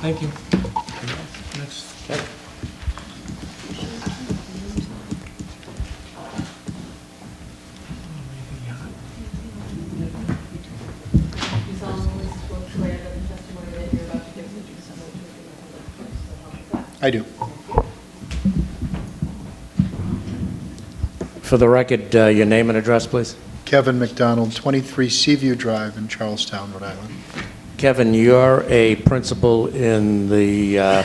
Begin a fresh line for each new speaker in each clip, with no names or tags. Thank you. Next.
You solemnly swear that the testimony that you're about to give is the truth, so help you God. So help you God.
I do.
For the record, uh, your name and address, please.
Kevin McDonald, 23 Seaview Drive in Charlestown, Rhode Island.
Kevin, you're a principal in the uh,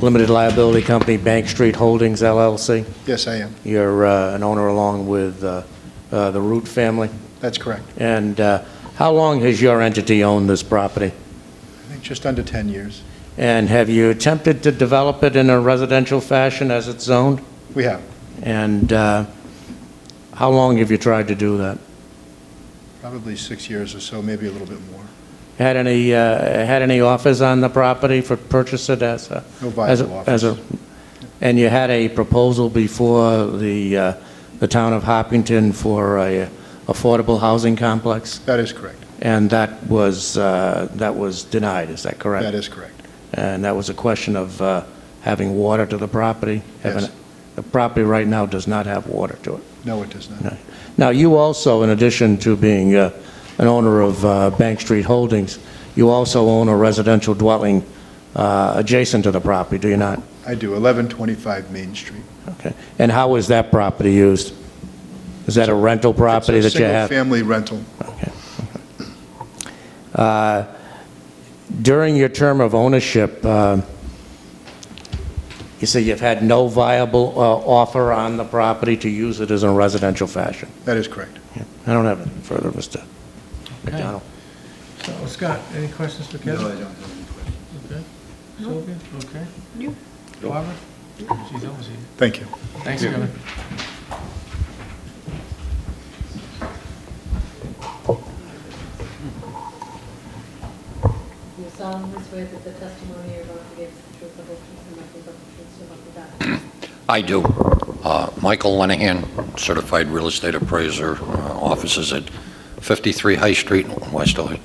limited liability company Bank Street Holdings LLC.
Yes, I am.
You're uh, an owner along with uh, uh, the Root family.
That's correct.
And uh, how long has your entity owned this property?
I think just under 10 years.
And have you attempted to develop it in a residential fashion as it's zoned?
We have,
And uh, how long have you tried to do that?
probably six years or so, maybe a little bit more.
Had any, uh, had any offers on the property for purchase it as a?
No
as a-
viable offers.
as a- And you had a proposal before the, uh, the town of Hopkinton for a affordable housing complex?
That is correct.
And that was, uh, that was denied, is that correct?
That is correct.
And that was a question of uh, having water to the property? having-
Yes.
The property right now does not have water to it.
No, it does not.
Right. Now, you also, in addition to being uh, an owner of uh, Bank Street Holdings, you also own a residential dwelling uh, adjacent to the property, do you not?
I do, 1125 Main Street.
Okay. And how is that property used? Is that a rental property that you have?
Single-family rental.
During your term of ownership, uh, you say you've had no viable uh, offer on the property to use it as a residential fashion.
That is correct.
I don't have anything further, Mr. McDonald.
So Scott, any questions for Kevin?
don't have any questions.
Okay. Sylvia, okay. Barbara? She's always here.
Thank you.
Thanks, Kevin.
You solemnly swear that the testimony you're about to give is the truth, the whole truth, and nothing but the truth, so help you God.
I do. Uh, Michael Lenahan, certified real estate appraiser, uh, offices at 53 High Street, in West Oak.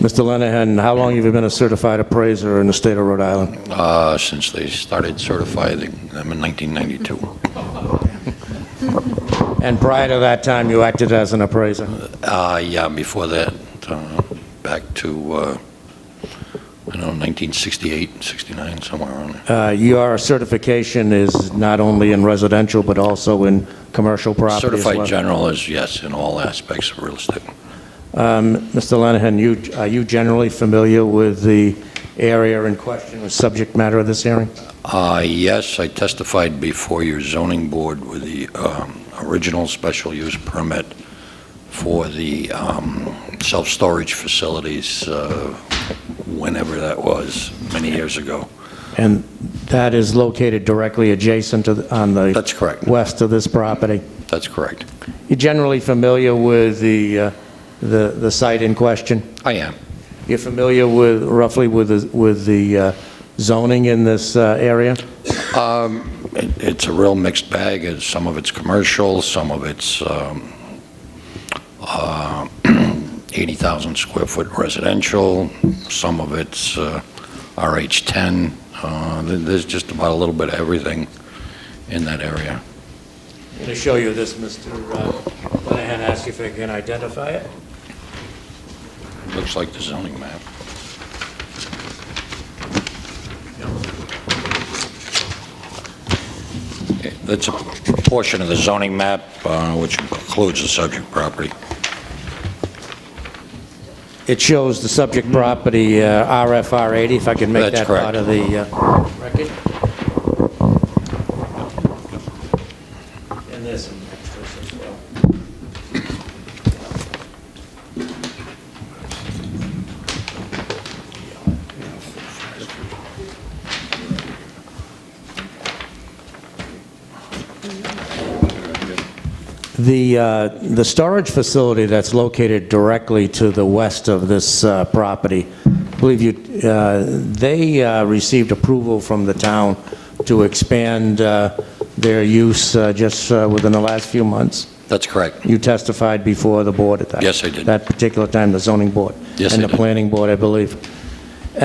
Mr. Lenahan, how long have you been a certified appraiser in the state of Rhode Island?
uh, since they started certifying them in 1992.
And prior to that time, you acted as an appraiser?
Uh, Yeah, before that, uh, back to, uh, I don't know, 1968, 69, somewhere around there.
Uh, Your certification is not only in residential, but also in commercial property as well?
Certified general is, yes, in all aspects of real estate.
Mr. Um, Lenahan, you, are you generally familiar with the area in question, the subject matter of this hearing?
Uh, Yes, I testified before your zoning board with the um, original special use permit for the um, self-storage facilities, uh, whenever that was, many years ago.
And that is located directly adjacent to, the- on the...
That's correct.
West of this property?
That's correct.
You generally familiar with the, uh, the the site in question?
I am.
You're familiar with, roughly with, the- with the uh, zoning in this uh, area?
Um, it- It's a real mixed bag. It's- Some of it's commercial, some of it's um, uh, 80,000 square foot residential, some of it's uh, RH10. Uh, th- There's just about a little bit of everything in that area.
I'm going to show you this, Mr. Lenahan, ask if I can identify it.
Looks like the zoning map. Okay, That's a portion of the zoning map uh, which includes the subject property.
It shows the subject property, uh, RFR 80, if I can make
That's
that part of
correct.
the uh, record. And there's some extras as well. The, uh, the storage facility that's located directly to the west of this uh, property, I believe you, uh, they uh, received approval from the town to expand uh, their use uh, just uh, within the last few months.
That's correct.
You testified before the board at that.
Yes, I did.
That particular time, the zoning board.
Yes, I
And
did.
the planning board, I believe.